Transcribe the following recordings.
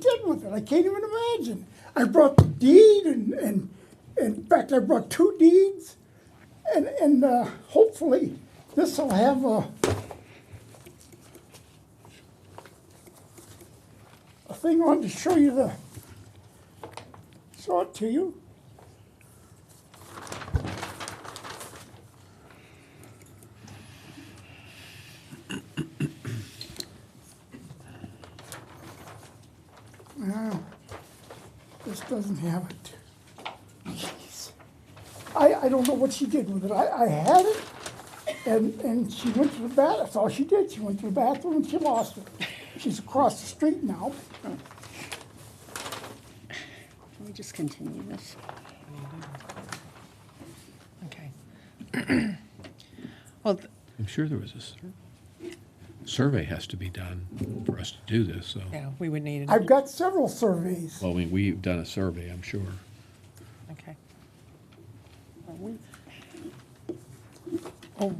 did with it. I can't even imagine. I brought the deed, and, and, and in fact, I brought two deeds, and, and uh, hopefully this will have a, a thing on to show you the, show it to you. No, this doesn't have it. Jeez. I, I don't know what she did with it. I, I had it, and, and she went to the bath, that's all she did. She went to the bathroom and she lost it. She's across the street now. Let me just continue this. Okay. Well, th- I'm sure there was a sur- survey has to be done for us to do this, so. yeah, we would need it. I've got several surveys. Well, I mean, we've done a survey, I'm sure. Okay. Oh,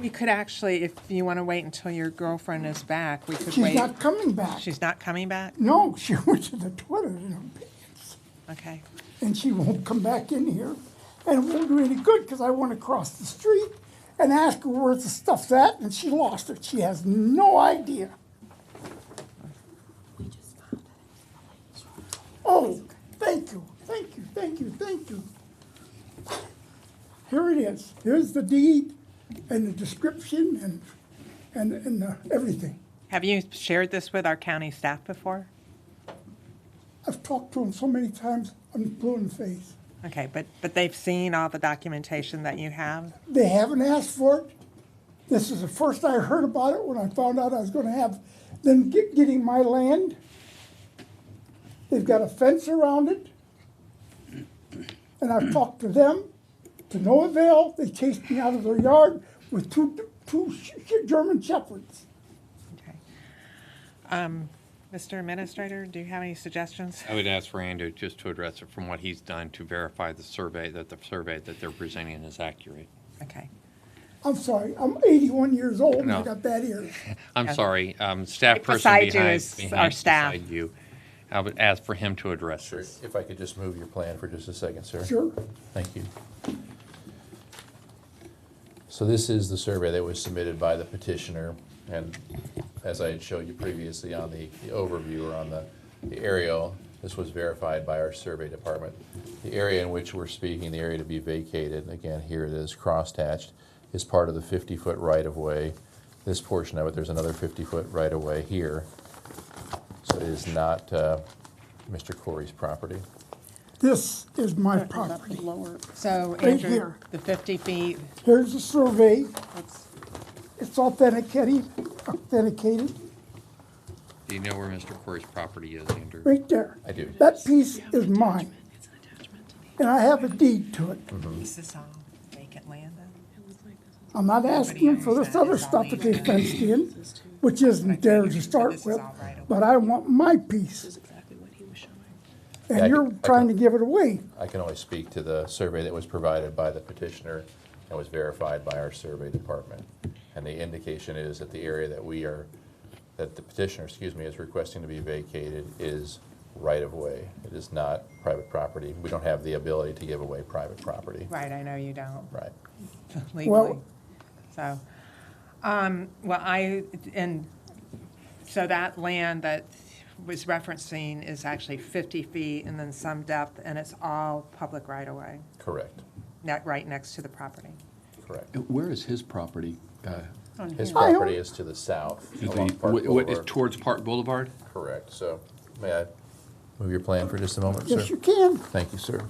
We could actually, if you want to wait until your girlfriend is back, we could She's wait. not coming back. She's not coming back? No, she went to the toilet in her pants, Okay. and she won't come back in here. And it won't do any good because I went across the street and asked her where the stuff's at, and she lost it. She has no idea. Oh, thank you, thank you, thank you, thank you. Here it is. Here's the deed and the description and, and, and uh, everything. Have you shared this with our county staff before? I've talked to him so many times, I'm blue in the face. Okay, but, but they've seen all the documentation that you have? They haven't asked for it. This is the first I heard about it when I found out I was gonna have them get, getting my land. They've got a fence around it. And I've talked to them, to no avail. They chased me out of their yard with two, two sh- sh- German shepherds. Okay. Um, Mr. Administrator, do you have any suggestions? I would ask Rando just to address it from what he's done to verify the survey, that the survey that they're presenting is accurate. Okay. I'm sorry, I'm eighty-one years old and I No. got bad ears. I'm Okay. sorry, um, staff Right person beside you behind. is behind- our staff. beside you. I would ask for him to address Sir, this. If I could just move your plan for just a second, sir. Sure, Thank you. So this is the survey that was submitted by the petitioner, and as I had showed you previously on the the overview or on the the aerial, this was verified by our survey department. The area in which we're speaking, the area to be vacated, again, here it is, crosshatched, is part of the 50-foot right-of-way. This portion of it, there's another 50-foot right-of-way here, so it is not uh, Mr. Corey's property. this is my Is that the property. Lower, So Right Andrew, here. the 50 feet, Here's the survey. that's- It's authenticated, authenticated, Do you know where Mr. Corey's property is, Andrew? right there. I do. That piece is mine, it's an attachment to me. and I have a deed to it. is this all vacant land then? It looks like this is I'm not asking them for this other stuff that they fenced in, which isn't there to start with, but I want my piece, exactly what he was showing. and you're trying to give it away. I can only speak to the survey that was provided by the petitioner and was verified by our survey department. And the indication is that the area that we are, that the petitioner, excuse me, is requesting to be vacated is right-of-way. It is not private property. We don't have the ability to give away private property. Right, I know you don't. Right. legally. So, um, well, I, and so that land that was referencing is actually 50 feet and then some depth, and it's all public right-of-way, Correct, not right next to the property. correct. Uh, Where is his property? Uh, His I don't- property is to the south is along the- Park what- what is Boulevard. Towards Park Boulevard? Correct, so may I move your plan for just a moment, sir? Yes, you can. Thank you, sir.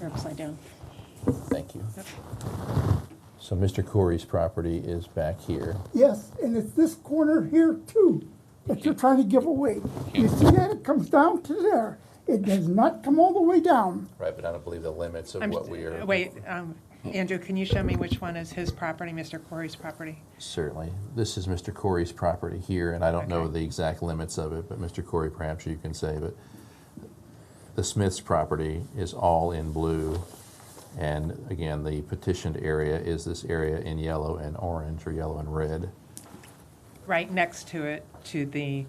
They're upside down. Thank you. So Mr. Corey's property is back here. Yes, and it's this corner here too that you're trying to give away. You see that? It comes down to there. It does not come all the way down. Right, but I don't believe the limits of I'm- what we are. Wait, um, Andrew, can you show me which one is his property, Mr. Corey's property? Certainly. This is Mr. Corey's property here, and I don't know Okay. the exact limits of it, but Mr. Corey, perhaps you can say, but the Smith's property is all in blue. And again, the petitioned area is this area in yellow and orange, or yellow and red. right next to it to the